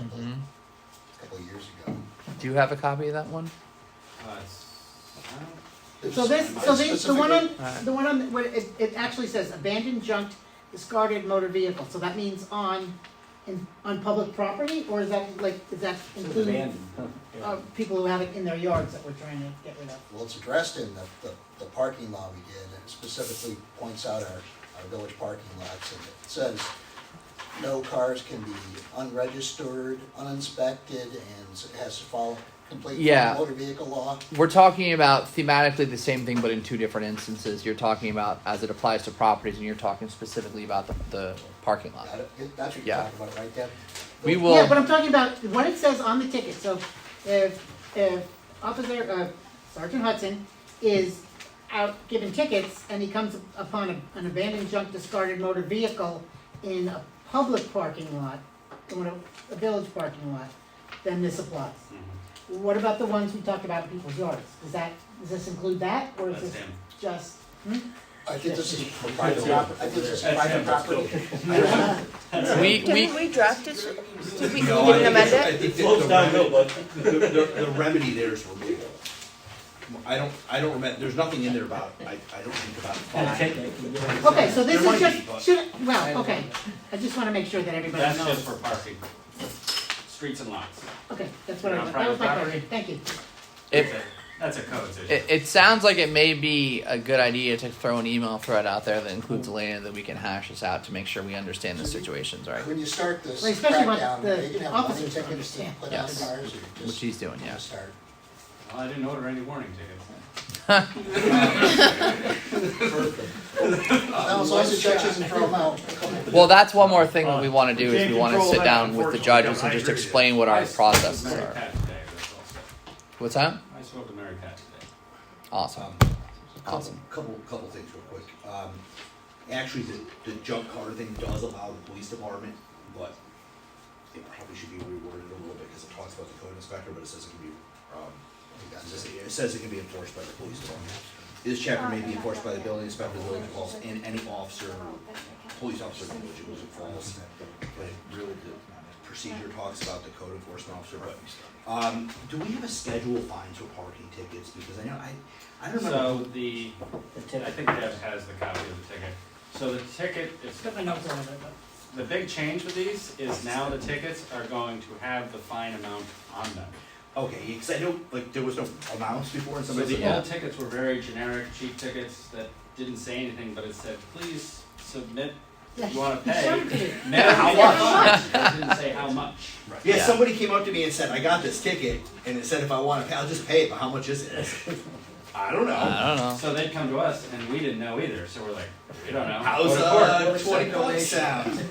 Mm-hmm. years ago. Do you have a copy of that one? Uh, it's- I don't- So this, so this, the one Specifically- on, Alright. the one on, what, it, it actually says abandoned, junked, discarded motor vehicle, so that means on, in, on public property, or is that like, is that include uh, people who have it in their yards that we're trying to get rid of? Well, it's addressed in the, the, the parking law we did, and it specifically points out our, our village parking lots, and it says, no cars can be unregistered, uninspected, and it has to follow complete Yeah. motor vehicle law. We're talking about thematically the same thing, but in two different instances. You're talking about as it applies to properties, and you're talking specifically about the, the parking lot. Got it? That's what you're Yeah. talking about, right, Deb? We will- Yeah, but I'm talking about what it says on the ticket, so if, if Officer, uh, Sergeant Hudson is out giving tickets and he comes upon a- an abandoned junk discarded motor vehicle in a public parking lot, in a, a village parking lot, then this applies. Mm-hmm. What about the ones we talked about in people's yards? Does that, does this include that, or is That's this him. just? I think this is for private Yeah. property, I think this is That's private him, that's property. We, we, Didn't we draft it? Did we, we No, didn't I think amend it's- I it? think that Floats the downhill, remedy- The, the, the remedy there is removal. I don't, I don't remember, there's nothing in there about, I, I don't think about fine. Okay, so this There is might be, just, but- should, well, okay, I just wanna make sure that everybody knows. That's just for parking, streets and lots. Okay, that's what I, On was- that was my private question, thank you. it, That's a code issue. it, it sounds like it may be a good idea to throw an email thread out there that includes Elena that we can hash this out to make sure we understand the situations, right? When you start this Like, especially when crackdown, the they can have money officers tickets to understand. put out Yes. cars, or What just, she's doing, just yes. start. Well, I didn't order any warning tickets. Perfect. Now, as long as the judge doesn't throw them out. Well, that's one more thing that we want to do is we want to sit down with the judges and just explain what I our spoke to processes Mary are. Pat today, that's all. What's that? I spoke to Mary Pat today. Awesome. Couple, Awesome. Um, couple, couple things real quick. Um, actually, the, the junk car thing does allow the police department, but it probably should be reworded a little bit, cause it talks about the code inspector, but it says it can be, um, it says it can be enforced by the police department. This chapter may be enforced by the building inspector, the building falls, and any officer, police officer, in which it was falls. But it really, the procedure talks about the code enforcement officer, but, um, do we have a schedule of fines for parking tickets? Because I know, I, I don't remember. So the, I think Deb has the copy of the ticket. So the ticket, it's Got my notes on it, but- The big change with these is now the tickets are going to have the fine amount on them. Okay, because I know, like, there was no amounts before and So somebody the said, "Oh, old tickets were very generic, cheap tickets that didn't say anything, but it said, please submit, if you wanna He pay. showed it to you. Now, How It didn't say how much. oh, yeah, Yeah. somebody came up to me and said, I got this ticket, and it said if I want to pay, I'll just pay it, but how much is it? I don't know. I don't know. So they'd come to us and we didn't know either, so we're like, we don't know. How's Go to court. uh, 20 bucks sound?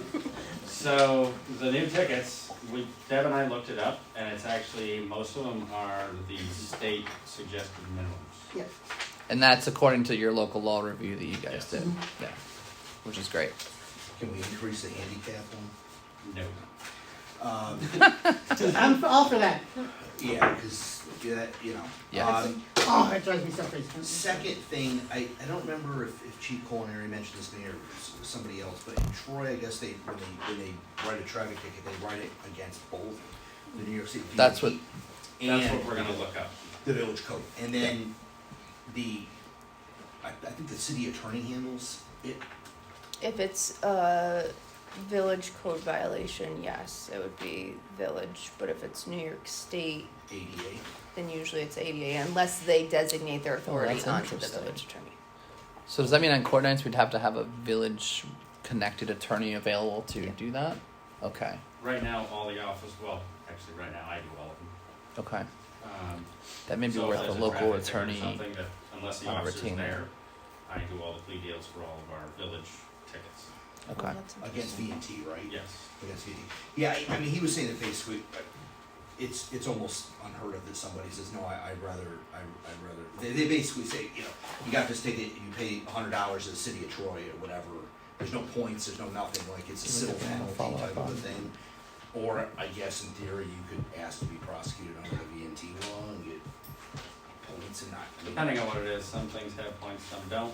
So the new tickets, we, Deb and I looked it up, and it's actually, most of them are the state suggested minimums. Yeah. And that's according to your local law review that you guys Yes. Mm-hmm. did. Yeah. Which is great. Can we increase the handicap one? No. Um, I'm all for that. yeah, because, you know. Yeah. Um, Oh, that drives me so crazy. Second thing, I, I don't remember if, if Chief Culinary mentioned this to me or s- somebody else, but in Troy, I guess they, when they, when they write a traffic ticket, they write it against both the New York City DOT That's what- That's and what we're gonna look up. The village code, and then the, I, I think the city attorney handles it, If it's a village code violation, yes, it would be village, but if it's New York State, ADA. then usually it's ADA, unless they designate their authority that's onto the interesting. village attorney. So does that mean on court nights we'd have to have a village connected attorney available to Yeah. do that? Okay. Right now, all the office, well, actually, right now, I do all of them. Okay. Um, That may be so if worth a there's local traffic ticket or attorney. Something that, unless the on a officer's retainer. there, I do all the plea deals for all of our village tickets. Okay. That's Against interesting. V and T, right? Yes. Against V and T. Yeah, I, I mean, he was saying that basically, uh, it's, it's almost unheard of that somebody says, no, I, I'd rather, I, I'd rather, they, they basically say, you know, you got this ticket, you pay a hundred dollars to the city of Troy or whatever, there's no points, there's no nothing, like, it's a civil penalty type of a thing. Or, I guess in theory, you could ask to be prosecuted under the V and T law and get points and not. I mean, Depending on what it is, some things have points, some don't.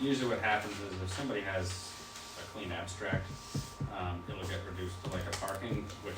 Usually what happens is if somebody has a clean abstract, um, it'll get reduced to like a parking, which